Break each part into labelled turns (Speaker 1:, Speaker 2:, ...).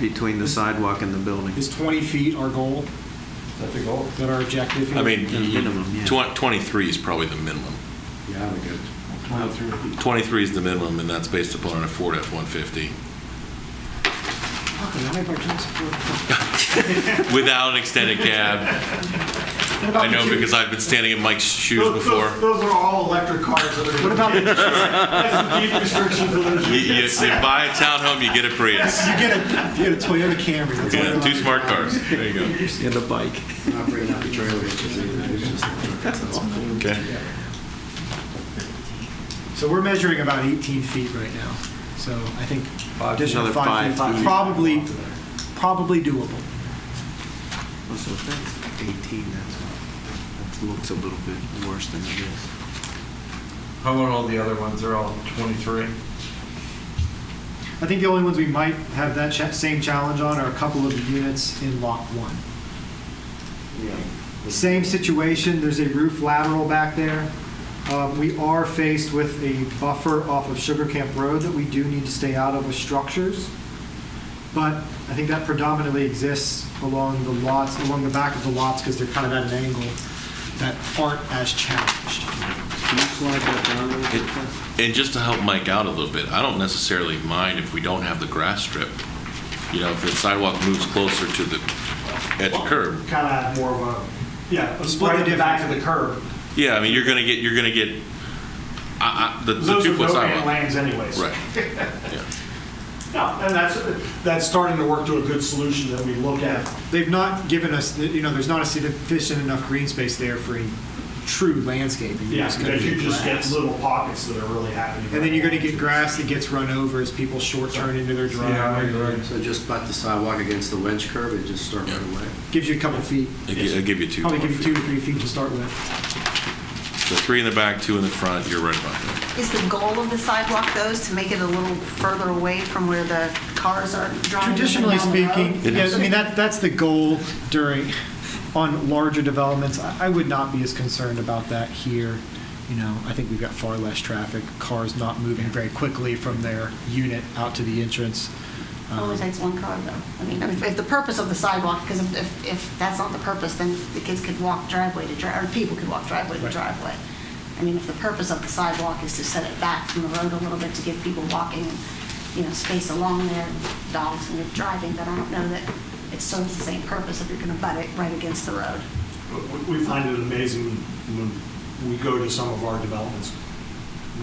Speaker 1: between the sidewalk and the building.
Speaker 2: Is 20 feet our goal,
Speaker 3: That's a goal.
Speaker 2: that our objective? here?
Speaker 4: I mean,
Speaker 1: The
Speaker 4: you-
Speaker 1: minimum, yeah.
Speaker 4: twen- 23 is probably the minimum.
Speaker 1: Yeah, we good.
Speaker 4: 23 is the minimum, and that's based upon a Ford F-150
Speaker 2: Fuck, I made my choice before.
Speaker 4: without an extended cab.
Speaker 2: What about
Speaker 4: I know
Speaker 2: the two-
Speaker 4: because I've been standing in Mike's shoes
Speaker 3: Those-
Speaker 4: before.
Speaker 3: Those, those are all electric cars. That are
Speaker 2: What about the
Speaker 3: That's the deed restriction for those.
Speaker 4: You, you, you buy a townhome, you get a Prius.
Speaker 2: You get a, you get a Toyota Camry. that's all
Speaker 4: Yeah,
Speaker 2: you're
Speaker 4: two
Speaker 2: allowed.
Speaker 4: smart cars. There you go.
Speaker 1: And the bike.
Speaker 5: Not bringing up the trailer. it's just- it's just-
Speaker 4: Okay.
Speaker 2: So we're measuring about 18 feet right now. So I think additional
Speaker 1: another
Speaker 2: five feet,
Speaker 1: five feet.
Speaker 2: probably, probably doable.
Speaker 1: Well, so if that's 18, that's, that looks a little bit worse than it is.
Speaker 3: How about all the other ones? They're all 23.
Speaker 2: I think the only ones we might have that cha- same challenge on are a couple of the units in Lot 1. Same situation, there's a roof lateral back there. Um, We are faced with a buffer off of Sugar Camp Road that we do need to stay out of with structures. But I think that predominantly exists along the lots, along the back of the lots, because they're kind of at an angle that aren't as challenged.
Speaker 1: Can you slide that down a little bit?
Speaker 4: And just to help Mike out a little bit, I don't necessarily mind if we don't have the grass strip. You know, if the sidewalk moves closer to the, at the curb.
Speaker 3: Kind of have more of a, yeah,
Speaker 2: Split
Speaker 3: right
Speaker 2: the
Speaker 3: at the back of the curb.
Speaker 4: Yeah, I mean, you're gonna get, you're gonna get, I, I, the the
Speaker 3: Those are
Speaker 4: two-foot
Speaker 3: no man
Speaker 4: sidewalk.
Speaker 3: lanes anyways.
Speaker 4: Right. Yeah.
Speaker 3: No, and that's, that's starting to work to a good solution that we look at.
Speaker 2: They've not given us, you know, there's not a sufficient enough green space there for a true landscaping. You're
Speaker 3: Yeah,
Speaker 2: just gonna
Speaker 3: because you just get
Speaker 2: grass.
Speaker 3: little pockets that are really happening.
Speaker 2: And then you're going to get grass that gets run over as people short turn into their driveway.
Speaker 5: So just butt the sidewalk against the wedge curb and just start right away.
Speaker 2: Gives you a couple feet.
Speaker 4: I'll gi- I'll give you two.
Speaker 2: Probably
Speaker 4: more
Speaker 2: give you two
Speaker 4: feet.
Speaker 2: to three feet to start with.
Speaker 4: So three in the back, two in the front, you're right about that.
Speaker 6: Is the goal of the sidewalk, though, is to make it a little further away from where the cars are driving?
Speaker 2: Traditionally
Speaker 6: up and down the
Speaker 2: speaking,
Speaker 6: road?
Speaker 4: It
Speaker 2: yeah,
Speaker 4: is.
Speaker 2: I mean, that, that's the goal during, on larger developments. I I would not be as concerned about that here. You know, I think we've got far less traffic, cars not moving very quickly from their unit out to the entrance.
Speaker 6: Only takes one car, though. I mean, if if the purpose of the sidewalk, because if, if that's not the purpose, then the kids could walk driveway to driveway, or people could walk driveway to
Speaker 2: Right.
Speaker 6: driveway. I mean, if the purpose of the sidewalk is to set it back from the road a little bit to give people walking, you know, space along there, dogs and driving, but I don't know that it serves the same purpose if you're going to butt it right against the road.
Speaker 3: We- We find it amazing when we go to some of our developments,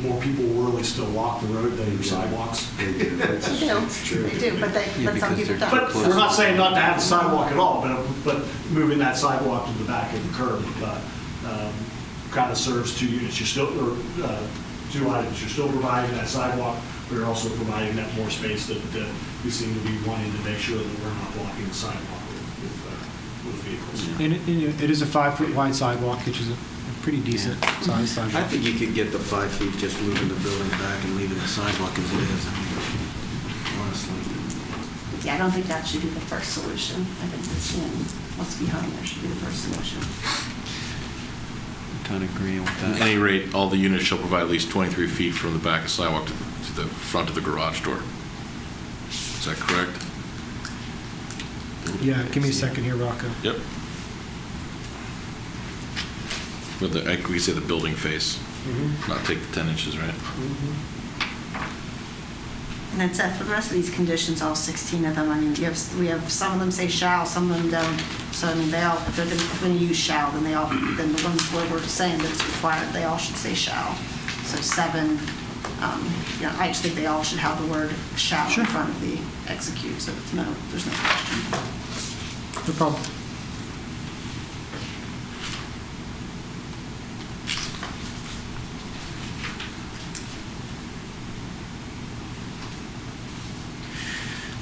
Speaker 3: more people really still walk the road than sidewalks.
Speaker 5: They do. It's-
Speaker 6: They do,
Speaker 5: it's true.
Speaker 6: they do, but they,
Speaker 1: Yeah,
Speaker 6: but some
Speaker 1: because
Speaker 6: people
Speaker 1: they're
Speaker 6: don't.
Speaker 3: But we're not saying not to have the sidewalk at all, but, but moving that sidewalk to the back of the curb, kind of serves two units. You're still, or, uh, two items, you're still providing that sidewalk, but you're also providing that more space that uh, we seem to be wanting to make sure that we're not blocking the sidewalk with- with, uh, with vehicles.
Speaker 2: And it- and it it is a five-foot wide sidewalk, which is a a pretty decent sized
Speaker 1: I
Speaker 2: sidewalk.
Speaker 1: think you could get the five feet just moving the building back and leaving the sidewalk as it is, I mean, honestly.
Speaker 6: Yeah, I don't think that should be the first solution. I think that's, you know, what's behind there should be the first solution.
Speaker 1: Kind of agreeing with
Speaker 4: At any rate, all the units shall provide at least 23 feet from the back of sidewalk to the- to the front of the garage door. Is that correct?
Speaker 2: Yeah, give me a second here, Rocco.
Speaker 4: Yep. With the, I think we say the building face, not take the 10 inches, right?
Speaker 6: And that's it. For the rest of these conditions, all 16 of them, I mean, you have, we have, some of them say shall, some of them don't. So, I mean, they all, if they're gonna, if they're gonna use shall, then they all, then the ones where we're saying that it's required, they all should say shall. So seven, um, you know, I just think they all should have the word shall in front of the execute, so it's no, there's no question.
Speaker 2: No problem.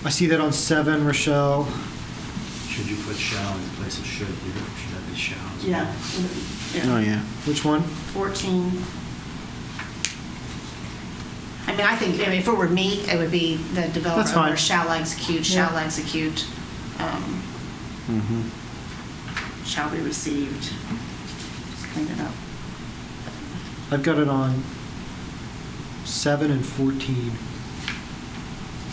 Speaker 2: I see that on seven, Rochelle.
Speaker 5: Should you put shall in place of should? You Should that be shall? as well?
Speaker 6: Yeah.
Speaker 1: Oh, yeah.
Speaker 2: Which one?
Speaker 6: 14. I mean, I think, I mean, if it were me, it would be the
Speaker 2: That's
Speaker 6: developer
Speaker 2: fine.
Speaker 6: owner shall execute, shall
Speaker 2: Yeah.
Speaker 6: execute, um,
Speaker 4: Mm-hmm.
Speaker 6: shall be received. Just Clean it up.
Speaker 2: I've got it on seven and 14.